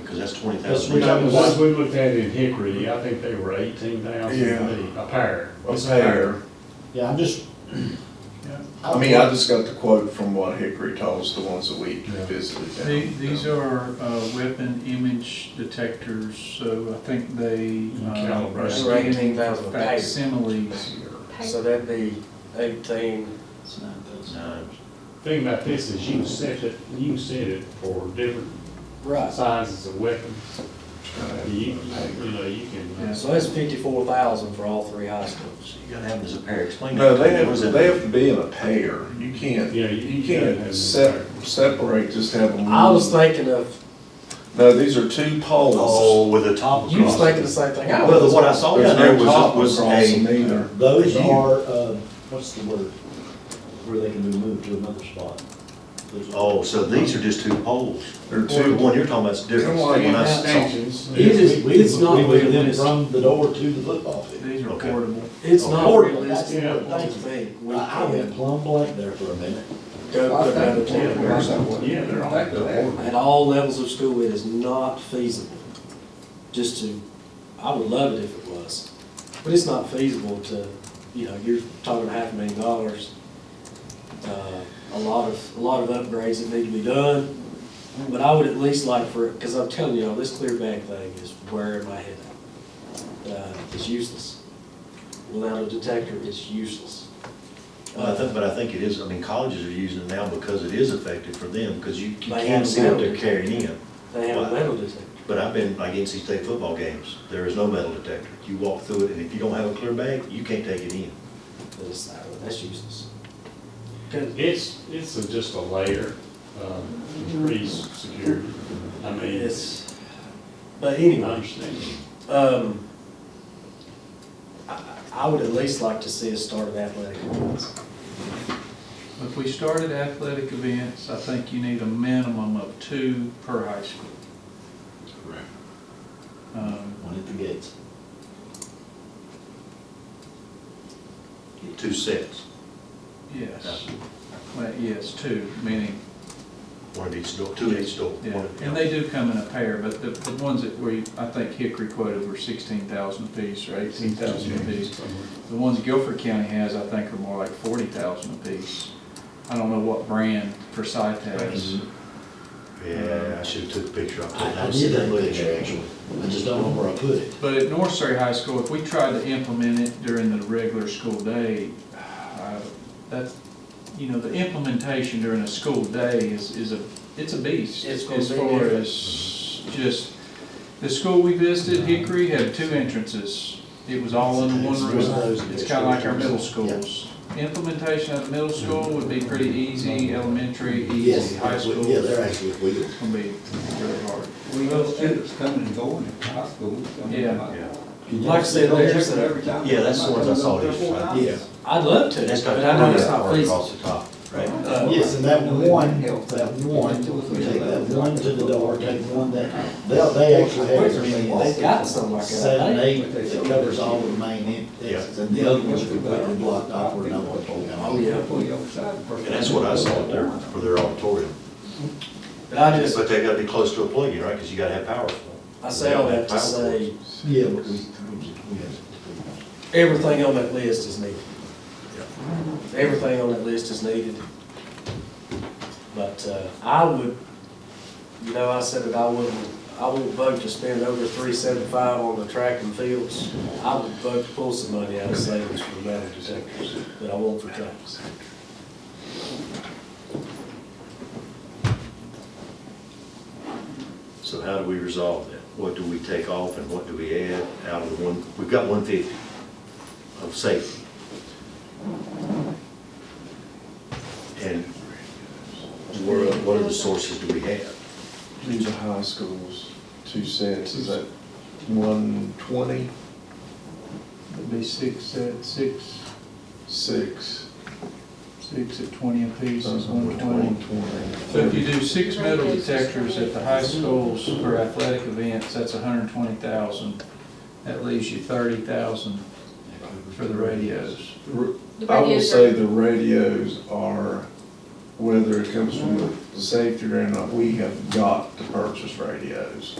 because that's twenty That's thousand. when I- the ones we looked at in Hickory, I think they were eighteen thousand Yeah. a pair. A pair. Yeah, I'm just. I mean, I just got the quote from what Hickory told us, the ones that we Yeah. visited. down- The- These down. are uh, weapon image detectors, so I think they. uh, Calibrate. scan They're 18,000 a pair. Facsimiles. So that'd be eighteen, It's not those. Nine. Thing about this is you set it, you set it for different right, sizes of weapons. You, you know, you can, so that's fifty-four thousand for all three high schools. You gotta have them as a pair, explain that. No, to me. they What have, is that? they have to be in a pair. You can't, yeah, you you you gotta have can't this sep- pair. separate, just have them. I was thinking of, No, these are two poles. Oh, with a top across. you was thinking the same thing I was. Well, what I saw There's down there no top was, was across them a, either. Those You- are, uh, what's the word, where they can be moved to another spot. Those are- oh, so these are just two poles. They're Two, two. one you're talking about's different. Come on, When I yeah. saw- Stanchions. It is, We- it's it's not not, we where it them is. from the door to the football field. These are Okay. portable. It's not Portable, that's realistic, the yeah. other I thing. think we Well, I went can plumb blank there for a minute. go to another Yeah, temporary. they're- yeah, they're all. At all levels of school, it is not feasible. Just to, I would love it if it was, but it's not feasible to, you know, you're talking half a million dollars. Uh, A lot of, a lot of upgrades that need to be done, but I would at least like for, because I'm telling y'all, this clear bag thing is wearing my head out. Uh, It's useless. Without a detector, it's useless. Well, I think, but I think it is, I mean, colleges are using it now because it is effective for them, because you you can They have see what metal. they're carrying in. They have a metal detector. But I've been, like NC State football games, there is no metal detector. You walk through it, and if you don't have a clear bag, you can't take it in. but it's- That's useless. It's, it's a- just a layer, um, increased security. I mean, it's, It's, but I anyway, understand. um, I, I would at least like to see us start at athletic events. If we started athletic events, I think you need a minimum of two per high school. Um, One at the gates. Two sets, Yes, Well, yes, two, meaning, one at each door, two at each door. yeah, one at- and they do come in a pair, but the, the ones that we, I think Hickory quoted were sixteen thousand apiece or eighteen thousand apiece. The ones Guilford County has, I think, are more like forty thousand apiece. I don't know what brand Forsyth has. Yeah, I should've took a picture of it. I, I was did sitting that there looking at picture it. actually, I just don't know where I put it. But at North Surrey High School, if we tried to implement it during the regular school day, uh, that's, you know, the implementation during a school day is, is a, it's a beast. It's gonna be As far different. as just, the school we visited, Hickory, had two entrances. It was all in one room. It's kind of like our middle schools. Implementation at the middle school would be pretty easy, elementary, easy, Yes, high school. yeah, they're actually with wheels. It's gonna be really hard. We have students coming and going at high school. some of them, Yeah. Like I said, They're there's different a, every time. Yeah, that's the ones I saw They're four these, right? times. Yeah. I'd love to, That's but got. I know it's not part feasible. Across the top, right? Uh, Yes, and that one, that one, we take that one to the door, take one that, they, they actually have as many. They've got something like Seven, that. eight, that covers all the main entrances, and the other ones are completely blocked off where no one can come. Oh, yeah. Pull you outside the first And that's what I time. saw there for their auditorium. But I just, But they gotta be close to a plug-in, right, because you gotta have power. for them. I say all that to say, Yeah, but we, we have. everything on that list is needed. Everything on that list is needed. But uh, I would, you know, I said that I wouldn't, I wouldn't vote to spend over three seventy-five on the track and fields. I would vote to pull some money out of savings for the metal detectors, but I won't for tracks. So how do we resolve that? What do we take off and what do we add out of the one, we've got one fifty of safety. And where, what other sources do we have? These are high schools, two sets, is that one twenty, it'd be six, uh, six, six? Six at twenty apiece is one One twenty. So if you do six metal detectors at the high schools for athletic events, that's hundred and twenty thousand. That leaves you thirty thousand for the radios. twenty. The I will radios say are- the radios are whether it comes from the safety or not, we have got to purchase radios.